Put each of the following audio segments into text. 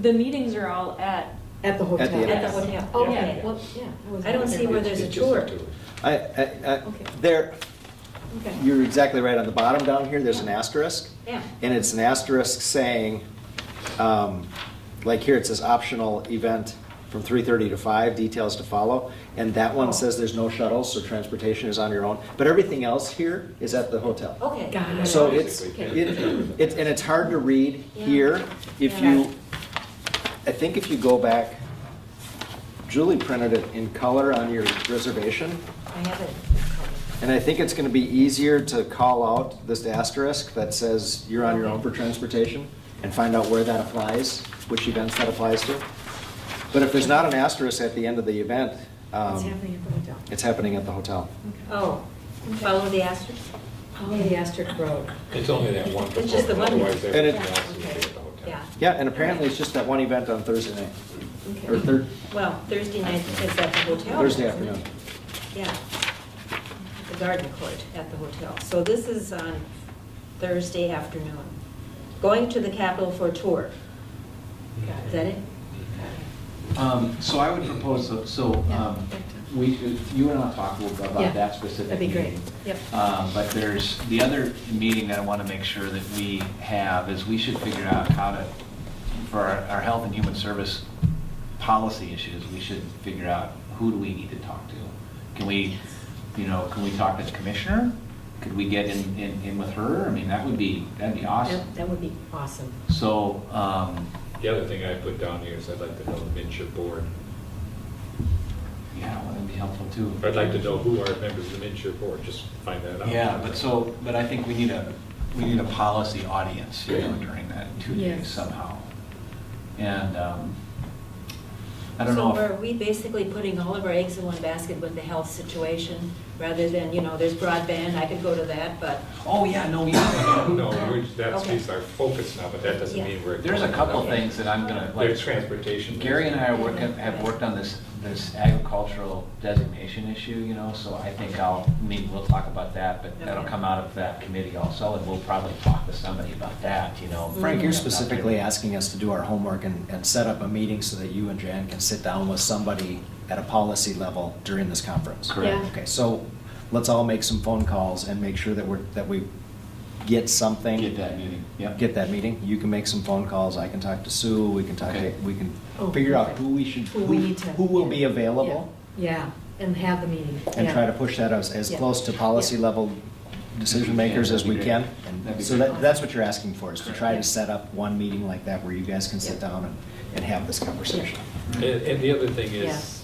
The meetings are all at, At the At the hotel. At the hotel. Okay, Yeah. well, yeah. I was I don't see where wondering. there's a It's just tour. I, I, I, Okay. there, Okay. you're exactly right, on the bottom down here, there's an Yeah. asterisk. Yeah. And it's an asterisk saying, um, like here, it says optional event from three thirty to five, details to follow. And that Oh. one says there's no shuttles, so transportation is on your own, but everything else here is at the hotel. Okay. Got it. So it's, it, Basically, it, and it's hard to read Yeah. here. If Yeah. you, I think if you go back, Julie printed it in color on your reservation. I have it. And I think it's gonna be easier to call out this asterisk that says you're on your own for transportation and find out where that applies, which events that applies to. But if there's not an asterisk at the end of the event, um, It's happening at the hotel. it's happening at the hotel. Oh, follow the asterisk? Only the asterisk road. It's only that one It's just the component, one. otherwise And everything it- Yeah, else is at okay. the hotel. Yeah. Yeah, and apparently it's just that one event on Thursday night, Okay. or thir- Well, Thursday night is at the hotel. Thursday isn't it? afternoon. Yeah. The garden court at the hotel. So this is on Thursday afternoon. Going to the Capitol for a tour. Is that it? Um, So I would propose, so- so Yeah, um, back to- we, you and I'll talk a little bit Yeah, about that specific that'd be meeting. great. Yep. Um, But there's, the other meeting that I want to make sure that we have is we should figure out how to, for our our health and human service policy issues, we should figure out who do we need to talk to? Can we, you know, can we talk to the commissioner? Could we get in, in in with her? I mean, that would be, that'd be awesome. That- That would be awesome. So, um, The other thing I put down here is I'd like to know the midship board. yeah, that'd be helpful too. I'd like to know who are members of the midship board, just find that out. Yeah, but so, but I think we need a, we need a policy audience, you know, during that two days Yes. somehow. And, um, I don't know. So are if- we basically putting all of our eggs in one basket with the health situation, rather than, you know, there's broadband, I could go to that, but Oh, yeah, no, yeah. No, we're- that's, Okay. these are focused now, but that doesn't Yeah. mean we're. There's a couple things that I'm gonna, like. There's transportation. Gary and I are work- have worked on this, this agricultural designation issue, you know, so I think I'll, I mean, we'll talk about that, but that'll Okay. come out of that committee also, and we'll probably talk to somebody about that, you know. Mm-hmm. Frank, you're About their- specifically asking us to do our homework and, and set up a meeting so that you and Jan can sit down with somebody at a policy level during this conference. Correct. Yeah. Okay, so let's all make some phone calls and make sure that we're, that we get something. Get that meeting, yep. Get that meeting. You can make some phone calls. I can talk to Sue. We can talk, Okay. we can Oh, figure out perfect. who we should, Who we need to. who will be available Yeah, Yeah, and have the meeting. and Yeah. try to push that as, as Yeah. close to policy Yeah. level decision makers as we can. And so that, that's what you're asking for, is to try to set up one meeting like that where you guys can sit down and, and have this conversation. And, and the other thing is,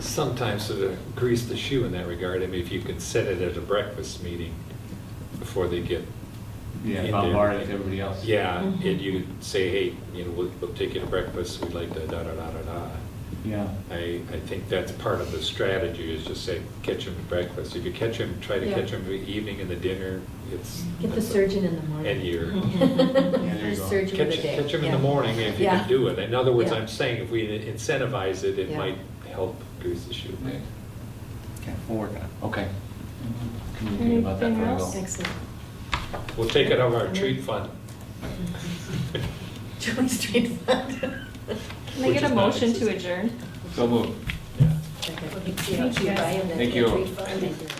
sometimes to grease the shoe in that regard, I mean, if you can set it at a breakfast meeting before they get. Yeah, in there. bombarded everybody else. Yeah, and Mhm. Mm-hmm. you say, hey, you know, we'll, we'll take you to breakfast, we'd like to da-da-da-da-da. Yeah. I, I think that's part of the strategy, is just say, catch them at breakfast. If you catch them, try to Yeah. catch them in the evening and the dinner, it's. Get the surgeon in the morning. And you're. there you go. Surgeon of Catch, the day. catch them in yeah. the morning if you Yeah. can do it. eh? In other words, Yeah. I'm saying if we incentivize it, it Yeah. might help grease the shoe. We'll work on it. Okay. Communicate about that very well. Excellent. We'll take it out of our treat fund. Joint Street Fund. Can I Which get a is not motion to existing. adjourn? So moved. Yeah. you know, Thank you buy in the Thank you. tree fund.